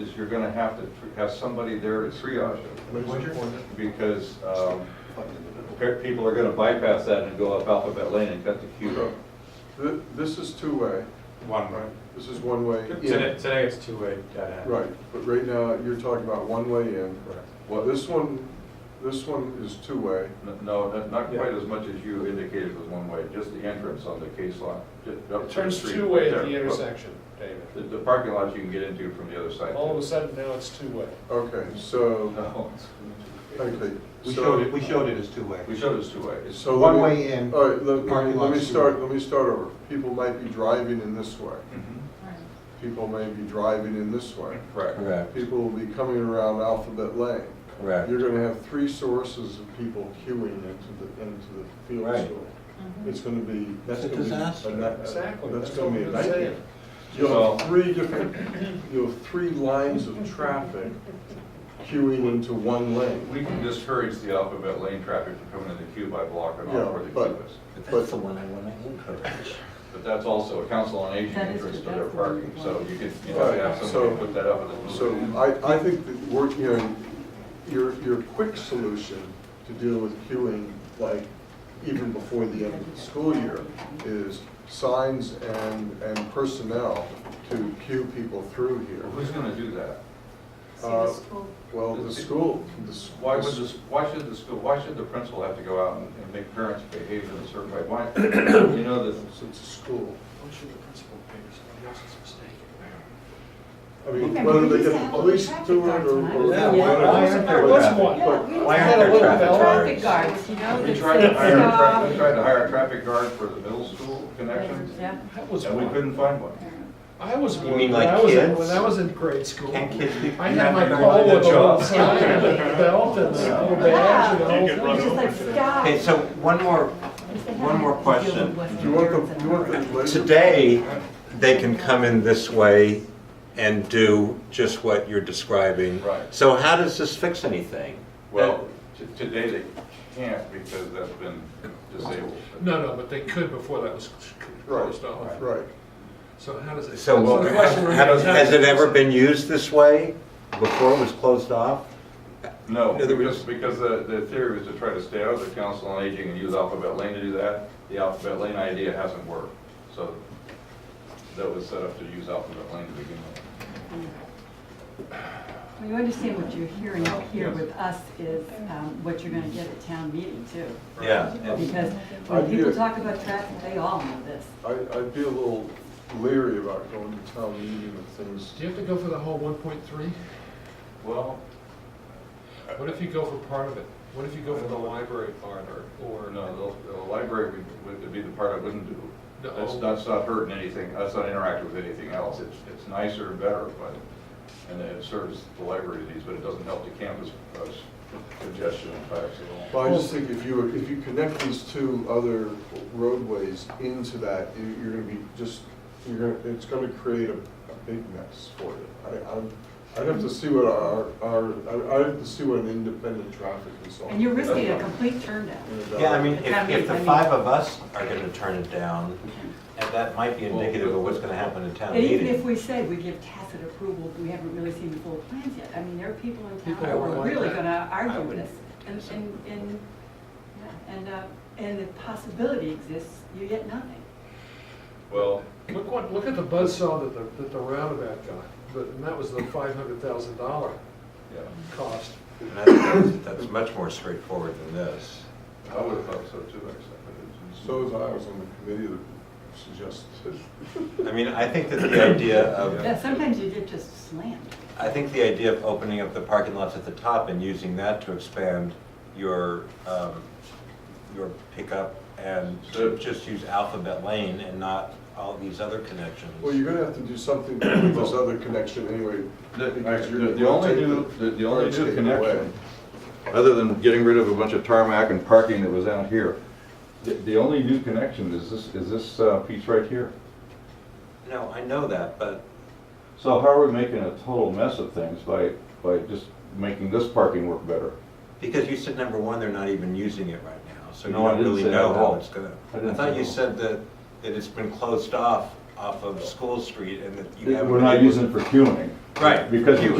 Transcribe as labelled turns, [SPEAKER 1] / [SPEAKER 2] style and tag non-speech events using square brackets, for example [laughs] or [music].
[SPEAKER 1] is you're gonna have to tr- have somebody there to triage it, because um, pe- people are gonna bypass that and go up Alphabet Lane and cut the queue road.
[SPEAKER 2] Th- This is two-way,
[SPEAKER 3] One way.
[SPEAKER 2] right? This is one-way
[SPEAKER 3] Today,
[SPEAKER 2] in.
[SPEAKER 3] today it's two-way dead end.
[SPEAKER 2] Right, but right now, you're talking about one-way in.
[SPEAKER 3] Correct.
[SPEAKER 2] Well, this one, this one is two-way.
[SPEAKER 1] N- No, not- not quite as much as you indicated was one way, just the entrance on the case lot. ju- up
[SPEAKER 4] It
[SPEAKER 1] to
[SPEAKER 4] turns
[SPEAKER 1] street,
[SPEAKER 4] two-way
[SPEAKER 1] right
[SPEAKER 4] at the
[SPEAKER 1] there.
[SPEAKER 4] intersection, David.
[SPEAKER 1] The, the parking lot you can get into from the other side.
[SPEAKER 4] All of a sudden, now it's two-way.
[SPEAKER 2] Okay, so,
[SPEAKER 1] [laughs] No, it's-
[SPEAKER 2] okay.
[SPEAKER 5] We
[SPEAKER 2] so-
[SPEAKER 5] showed it, we showed it as two-way.
[SPEAKER 1] we showed it's two-way. It's-
[SPEAKER 2] So
[SPEAKER 5] One
[SPEAKER 2] let me-
[SPEAKER 5] way in,
[SPEAKER 2] All right, let me,
[SPEAKER 5] parking
[SPEAKER 2] let me
[SPEAKER 5] lot's two
[SPEAKER 2] start,
[SPEAKER 5] way.
[SPEAKER 2] let me start over. People might be driving in this way. People may be driving in this way.
[SPEAKER 1] Mm-hmm. Correct.
[SPEAKER 6] Correct,
[SPEAKER 2] People will be coming around Alphabet Lane.
[SPEAKER 6] correct.
[SPEAKER 2] You're gonna have three sources of people queuing into the, into the field
[SPEAKER 6] Right.
[SPEAKER 2] store. It's gonna be, that's
[SPEAKER 5] It's a
[SPEAKER 2] gonna be.
[SPEAKER 5] disaster.
[SPEAKER 2] night-
[SPEAKER 4] Exactly,
[SPEAKER 2] That's
[SPEAKER 4] that's
[SPEAKER 2] gonna
[SPEAKER 4] what
[SPEAKER 2] be a
[SPEAKER 4] I'm
[SPEAKER 2] nightmare.
[SPEAKER 4] saying.
[SPEAKER 2] You'll have three different, you'll have three lines of traffic queuing into one lane.
[SPEAKER 1] We can discourage the Alphabet Lane traffic from coming in the queue by blocking
[SPEAKER 2] Yeah,
[SPEAKER 1] off where the
[SPEAKER 2] but-
[SPEAKER 1] queue is.
[SPEAKER 2] But-
[SPEAKER 6] That's the one I want to encourage.
[SPEAKER 1] But that's also a council on aging
[SPEAKER 7] That is
[SPEAKER 1] interest to
[SPEAKER 7] true.
[SPEAKER 1] their
[SPEAKER 7] That's the one
[SPEAKER 1] parking,
[SPEAKER 7] we
[SPEAKER 1] so
[SPEAKER 7] want.
[SPEAKER 1] you could, you have to
[SPEAKER 2] Right.
[SPEAKER 1] have somebody
[SPEAKER 2] So-
[SPEAKER 1] put that up and then
[SPEAKER 2] So
[SPEAKER 1] move it.
[SPEAKER 2] I, I think that we're, you know, your, your quick solution to deal with queuing, like even before the end
[SPEAKER 7] Mm-hmm.
[SPEAKER 2] of the school year, is signs and, and personnel to queue people through here.
[SPEAKER 1] Well, Who's gonna do that?
[SPEAKER 7] See
[SPEAKER 2] Uh,
[SPEAKER 7] the school,
[SPEAKER 2] Well, the school, the. s-
[SPEAKER 1] Why would this, why should the school, why should the principal have to go out and and make parents behave in a certain way? Why, you know, that,
[SPEAKER 2] It's a school.
[SPEAKER 3] What should the principal pay somebody else's mistake?
[SPEAKER 2] I
[SPEAKER 7] I
[SPEAKER 2] mean,
[SPEAKER 7] think
[SPEAKER 2] whether
[SPEAKER 7] we
[SPEAKER 2] they get
[SPEAKER 7] used to
[SPEAKER 2] the
[SPEAKER 7] have a
[SPEAKER 2] police
[SPEAKER 7] traffic
[SPEAKER 2] to it or.
[SPEAKER 7] guard tonight.
[SPEAKER 2] or-
[SPEAKER 7] Yeah,
[SPEAKER 2] or-
[SPEAKER 6] why- why aren't
[SPEAKER 4] There
[SPEAKER 6] there
[SPEAKER 4] was
[SPEAKER 6] traffic-
[SPEAKER 4] one.
[SPEAKER 7] Yeah, we used to
[SPEAKER 6] Why
[SPEAKER 7] have
[SPEAKER 6] aren't
[SPEAKER 7] a
[SPEAKER 6] there
[SPEAKER 7] little
[SPEAKER 6] traffic
[SPEAKER 7] traffic
[SPEAKER 6] guards?
[SPEAKER 7] guards, you know,
[SPEAKER 1] we
[SPEAKER 7] that
[SPEAKER 1] tried to hire, a
[SPEAKER 7] stop.
[SPEAKER 1] tra- we tried to hire a traffic guard for the middle school connection,
[SPEAKER 7] Yeah.
[SPEAKER 4] That was
[SPEAKER 1] and we
[SPEAKER 4] one.
[SPEAKER 1] couldn't find one.
[SPEAKER 4] I was
[SPEAKER 5] You
[SPEAKER 4] one,
[SPEAKER 5] mean
[SPEAKER 4] when
[SPEAKER 5] like
[SPEAKER 4] I was, in-
[SPEAKER 5] kids?
[SPEAKER 4] when I was in grade school.
[SPEAKER 5] Can't
[SPEAKER 4] I
[SPEAKER 5] kids be-
[SPEAKER 4] had my
[SPEAKER 5] you have
[SPEAKER 4] call
[SPEAKER 5] to
[SPEAKER 4] with a
[SPEAKER 5] job.
[SPEAKER 4] little sign and a belt and a little badge and the whole thing.
[SPEAKER 7] It's just like, stop.
[SPEAKER 5] Okay, so one more, one more question.
[SPEAKER 2] Do you want the, you want the laser?
[SPEAKER 6] Today, they can come in this way and do just what you're describing.
[SPEAKER 1] Right.
[SPEAKER 6] So how does this fix anything?
[SPEAKER 1] Well, t- today they can't because that's been disabled.
[SPEAKER 4] No, no, but they could before that was closed off.
[SPEAKER 2] Right.
[SPEAKER 4] So how does it?
[SPEAKER 6] So
[SPEAKER 4] that's
[SPEAKER 6] well,
[SPEAKER 4] the question we're
[SPEAKER 6] how-
[SPEAKER 4] gonna
[SPEAKER 6] has
[SPEAKER 4] have.
[SPEAKER 6] it ever been used this way before it was closed off?
[SPEAKER 1] No,
[SPEAKER 6] In other words-
[SPEAKER 1] just because the, the theory was to try to stay out of the council on aging and use Alphabet Lane to do that. The Alphabet Lane idea hasn't worked, so that was set up to use Alphabet Lane to begin with.
[SPEAKER 7] You understand what you're hearing up here
[SPEAKER 1] Yes.
[SPEAKER 7] with us is um, what you're gonna get at town meeting too.
[SPEAKER 6] Yeah.
[SPEAKER 7] Because
[SPEAKER 2] I
[SPEAKER 7] when people
[SPEAKER 2] hear-
[SPEAKER 7] talk about traffic, they all know this.
[SPEAKER 2] I, I'd be a little leery about going to town meeting and things.
[SPEAKER 4] Do you have to go for the whole one point three?
[SPEAKER 1] Well,
[SPEAKER 4] What if you go for part of it? What if you go for the library part or, or?
[SPEAKER 1] or no, the, the library would- would, would be the part I wouldn't do.
[SPEAKER 4] No.
[SPEAKER 1] That's, that's not hurting anything, that's not interacting with anything else. It's, it's nicer and better, but, and it serves the library needs, but it doesn't help the campus uh, congestion and facts at all.
[SPEAKER 2] Well, I just think if you, if you connect these two other roadways into that, you- you're gonna be just, you're gonna, it's gonna create a, a big mess for you. I, I'm, I'd have to see what our, our, I'd- I'd have to see what an independent traffic consultant.
[SPEAKER 7] And you're risking a complete turn down.
[SPEAKER 6] Yeah, I mean, if, if the five of us are gonna turn it down, and that might be indicative of what's gonna happen in town
[SPEAKER 7] And even
[SPEAKER 6] meeting.
[SPEAKER 7] if we say we give tacit approval, we haven't really seen the full plans yet. I mean, there are people in town
[SPEAKER 4] People
[SPEAKER 7] who
[SPEAKER 4] wouldn't
[SPEAKER 7] are
[SPEAKER 4] like
[SPEAKER 7] really
[SPEAKER 4] that.
[SPEAKER 7] gonna
[SPEAKER 6] I
[SPEAKER 7] argue with
[SPEAKER 6] wouldn't.
[SPEAKER 7] us. And, and, and, yeah, and, uh, and the possibility exists, you get nothing.
[SPEAKER 1] Well,
[SPEAKER 4] Look what, look at the buzzsaw that the, that the roundabout got, but, and that was the five hundred thousand dollar
[SPEAKER 1] yeah.
[SPEAKER 4] cost.
[SPEAKER 6] And that's- That's much more straightforward than this.
[SPEAKER 1] I would have thought so too, actually.
[SPEAKER 2] So as I was on the committee that suggested.
[SPEAKER 6] I mean, I think that the idea of
[SPEAKER 7] Yeah, sometimes you get just slammed.
[SPEAKER 6] I think the idea of opening up the parking lots at the top and using that to expand your, um, your pickup and to just use Alphabet Lane and not all these other connections.
[SPEAKER 2] Well, you're gonna have to do something with this other connection anyway.
[SPEAKER 1] The,
[SPEAKER 2] because you're
[SPEAKER 1] the- the
[SPEAKER 2] gonna
[SPEAKER 1] only
[SPEAKER 2] take
[SPEAKER 1] new, the- the only
[SPEAKER 2] take
[SPEAKER 1] new
[SPEAKER 2] it away.
[SPEAKER 1] connection, other than getting rid of a bunch of tarmac and parking that was out here, the, the only new connection is this, is this uh, piece right here.
[SPEAKER 6] No, I know that, but
[SPEAKER 1] So how are we making a total mess of things by, by just making this parking work better?
[SPEAKER 6] because you said number one, they're not even using it right now, so you
[SPEAKER 1] No, I
[SPEAKER 6] don't
[SPEAKER 1] didn't
[SPEAKER 6] really
[SPEAKER 1] say that
[SPEAKER 6] know
[SPEAKER 1] at
[SPEAKER 6] how
[SPEAKER 1] all.
[SPEAKER 6] it's gonna.
[SPEAKER 1] I didn't
[SPEAKER 6] I
[SPEAKER 1] say
[SPEAKER 6] thought you
[SPEAKER 1] that.
[SPEAKER 6] said that, that it's been closed off
[SPEAKER 1] off of School Street and that you have.
[SPEAKER 6] We're not using it for queuing.
[SPEAKER 1] Right.
[SPEAKER 6] Because the
[SPEAKER 1] Queuing.
[SPEAKER 6] queuing